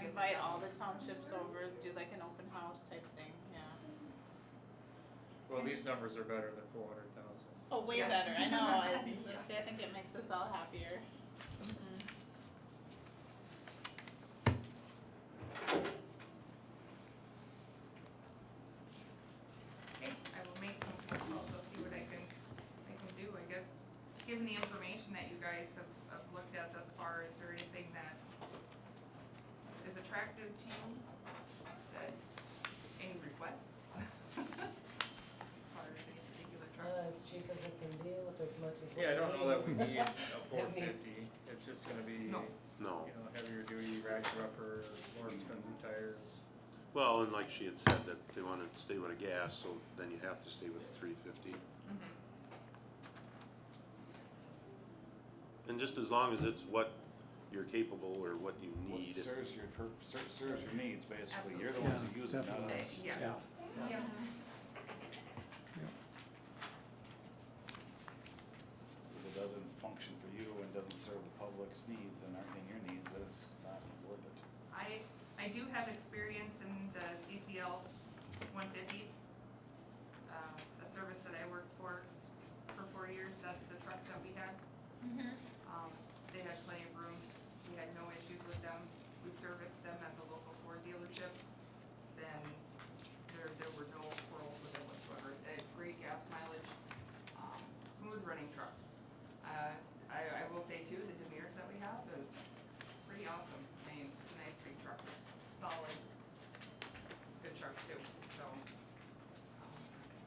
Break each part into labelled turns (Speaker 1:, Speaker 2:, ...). Speaker 1: invite all the townships over, do like an open house type thing, yeah.
Speaker 2: Well, these numbers are better than four hundred thousand.
Speaker 1: Oh, way
Speaker 3: Yeah.
Speaker 1: better, I know, I, see, I think it makes us all happier. Mhm.
Speaker 3: Okay, I will make some phone calls, I'll see what I can, I can do, I guess, given the information that you guys have, have looked at thus far, is there anything that is attractive to you? That, any requests? As far as any particular
Speaker 4: Uh,
Speaker 3: trucks?
Speaker 4: as cheap as it can be with as much as.
Speaker 2: Yeah, I don't know that we need a four
Speaker 4: That means-
Speaker 2: fifty, it's just gonna be, you know,
Speaker 3: No.
Speaker 5: No.
Speaker 2: heavier duty, rack upper, more expensive tires.
Speaker 5: Well, and like she had said, that they wanna stay with a gas, so then you have to stay with the three fifty.
Speaker 3: Mhm.
Speaker 5: And just as long as it's what you're capable or what you
Speaker 6: What
Speaker 5: need.
Speaker 6: serves your, pur- ser- serves your needs, basically, you're the ones who use it, not
Speaker 3: Uh,
Speaker 6: us.
Speaker 3: Yes.
Speaker 7: Yeah.
Speaker 3: Yeah.
Speaker 6: If it doesn't function for you and doesn't serve the public's needs and aren't in your needs, then it's not worth it.
Speaker 3: I, I do have experience in the CCL one fifties. Uh, a service that I worked for, for four years, that's the truck that we had. Um, they had plenty of room, we had no issues with them, we serviced them at the local Ford dealership. Then there, there were no quarrels with it whatsoever, they had great gas mileage, um, smooth running trucks. Uh, I, I will say too, the Demirs that we have is pretty awesome, I mean, it's a nice big truck, solid. It's a good truck too, so. um,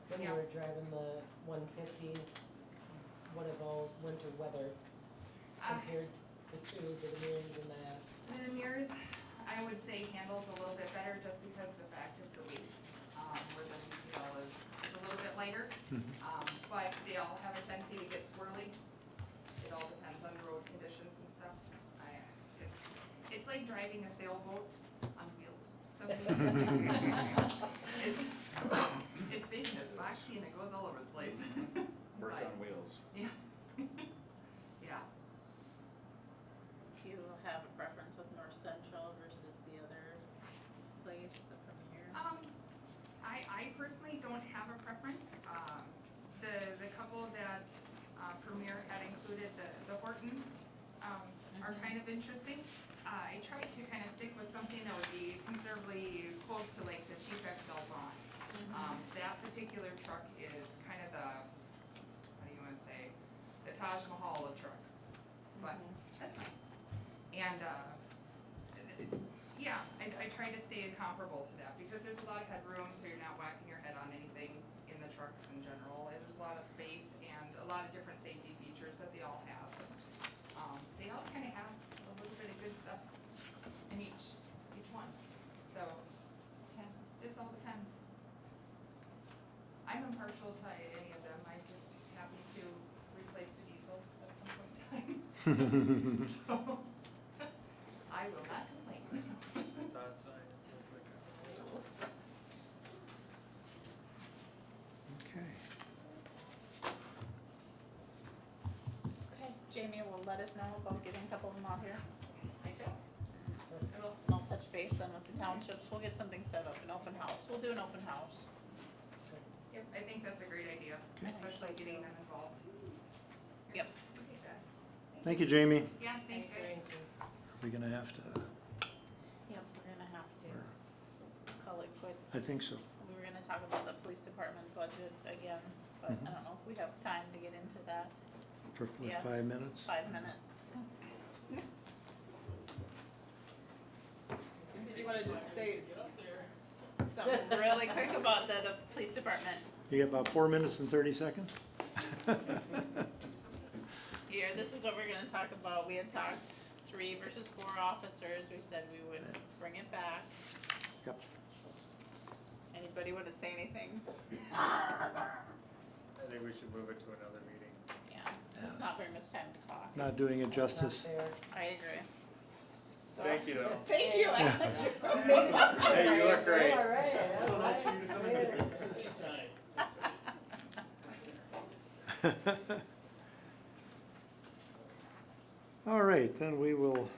Speaker 4: When we
Speaker 3: Yeah.
Speaker 4: were driving the one fifty, what about winter weather
Speaker 3: I-
Speaker 4: compared the two, the Demers and the,
Speaker 3: The mirrors, I would say handles a little bit better just because of the fact of the weight, um, where the CCL is, is a little bit lighter. Um, but they all have a tendency to get swirly. It all depends on road conditions and stuff. I, it's, it's like driving a sailboat on wheels. Some days. It's, it's big and it's boxy and it goes all over the place.
Speaker 6: Mm-hmm. Work
Speaker 3: Right.
Speaker 6: on wheels.
Speaker 3: Yeah. Yeah.
Speaker 1: Do you have a preference with North Central versus the other place, the Premier?
Speaker 3: Um, I, I personally don't have a preference. Um, the, the couple that, uh, Premier had included, the, the Hortons, um, are kind of interesting. Uh, I tried to kind of stick with something that would be considerably close to like the Chief XL Vaughn. Um, that particular truck is kind of the, what do you wanna say, the Taj Mahal of trucks. But that's fine. And, uh, yeah, I, I try to stay comparable to that because there's a lot of headroom, so you're not whacking your head on anything in the trucks in general. And There's a lot of space and a lot of different safety features that they all have. Um, they all kind of have a little bit of good stuff in each, each one. So, yeah, just all depends. I'm impartial to any of them. I'm just happy to replace the diesel at some point in time. So, I will not complain.
Speaker 2: Not science, it's like a-
Speaker 7: Okay.
Speaker 1: Okay, Jamie will let us know about getting a couple of them out here.
Speaker 3: I shall.
Speaker 1: It'll- I'll touch base then with the townships, we'll get something set up, an open house, we'll do an open house.
Speaker 3: Yep, I think that's a great idea,
Speaker 7: Okay.
Speaker 3: especially getting them involved.
Speaker 1: Yep.
Speaker 3: We'll take that.
Speaker 7: Thank you, Jamie.
Speaker 3: Yeah, thanks guys.
Speaker 4: Thank you.
Speaker 7: We're gonna have to,
Speaker 1: Yep, we're gonna have to call it quits.
Speaker 7: I think so.
Speaker 1: We were gonna talk about the police department budget again, but I don't know if we have time to get into that,
Speaker 7: For for
Speaker 1: Yes.
Speaker 7: five minutes.
Speaker 1: five
Speaker 2: Mm-hmm.
Speaker 1: minutes. Did you wanna just say something really quick about the, the police department?
Speaker 7: You got about four minutes and thirty seconds?
Speaker 1: Here, this is what we're gonna talk about. We had talked three versus four officers. We said we would bring it back.
Speaker 7: Yep.
Speaker 1: Anybody wanna say anything?
Speaker 2: I think we should move it to another meeting.
Speaker 1: Yeah, it's not very much time to talk.
Speaker 7: Not doing it
Speaker 4: That's not
Speaker 7: justice.
Speaker 4: fair.
Speaker 1: I agree. So-
Speaker 2: Thank you though.
Speaker 1: Thank you, I-
Speaker 2: Hey, you look great.
Speaker 4: All right, all right.
Speaker 7: All right, then we will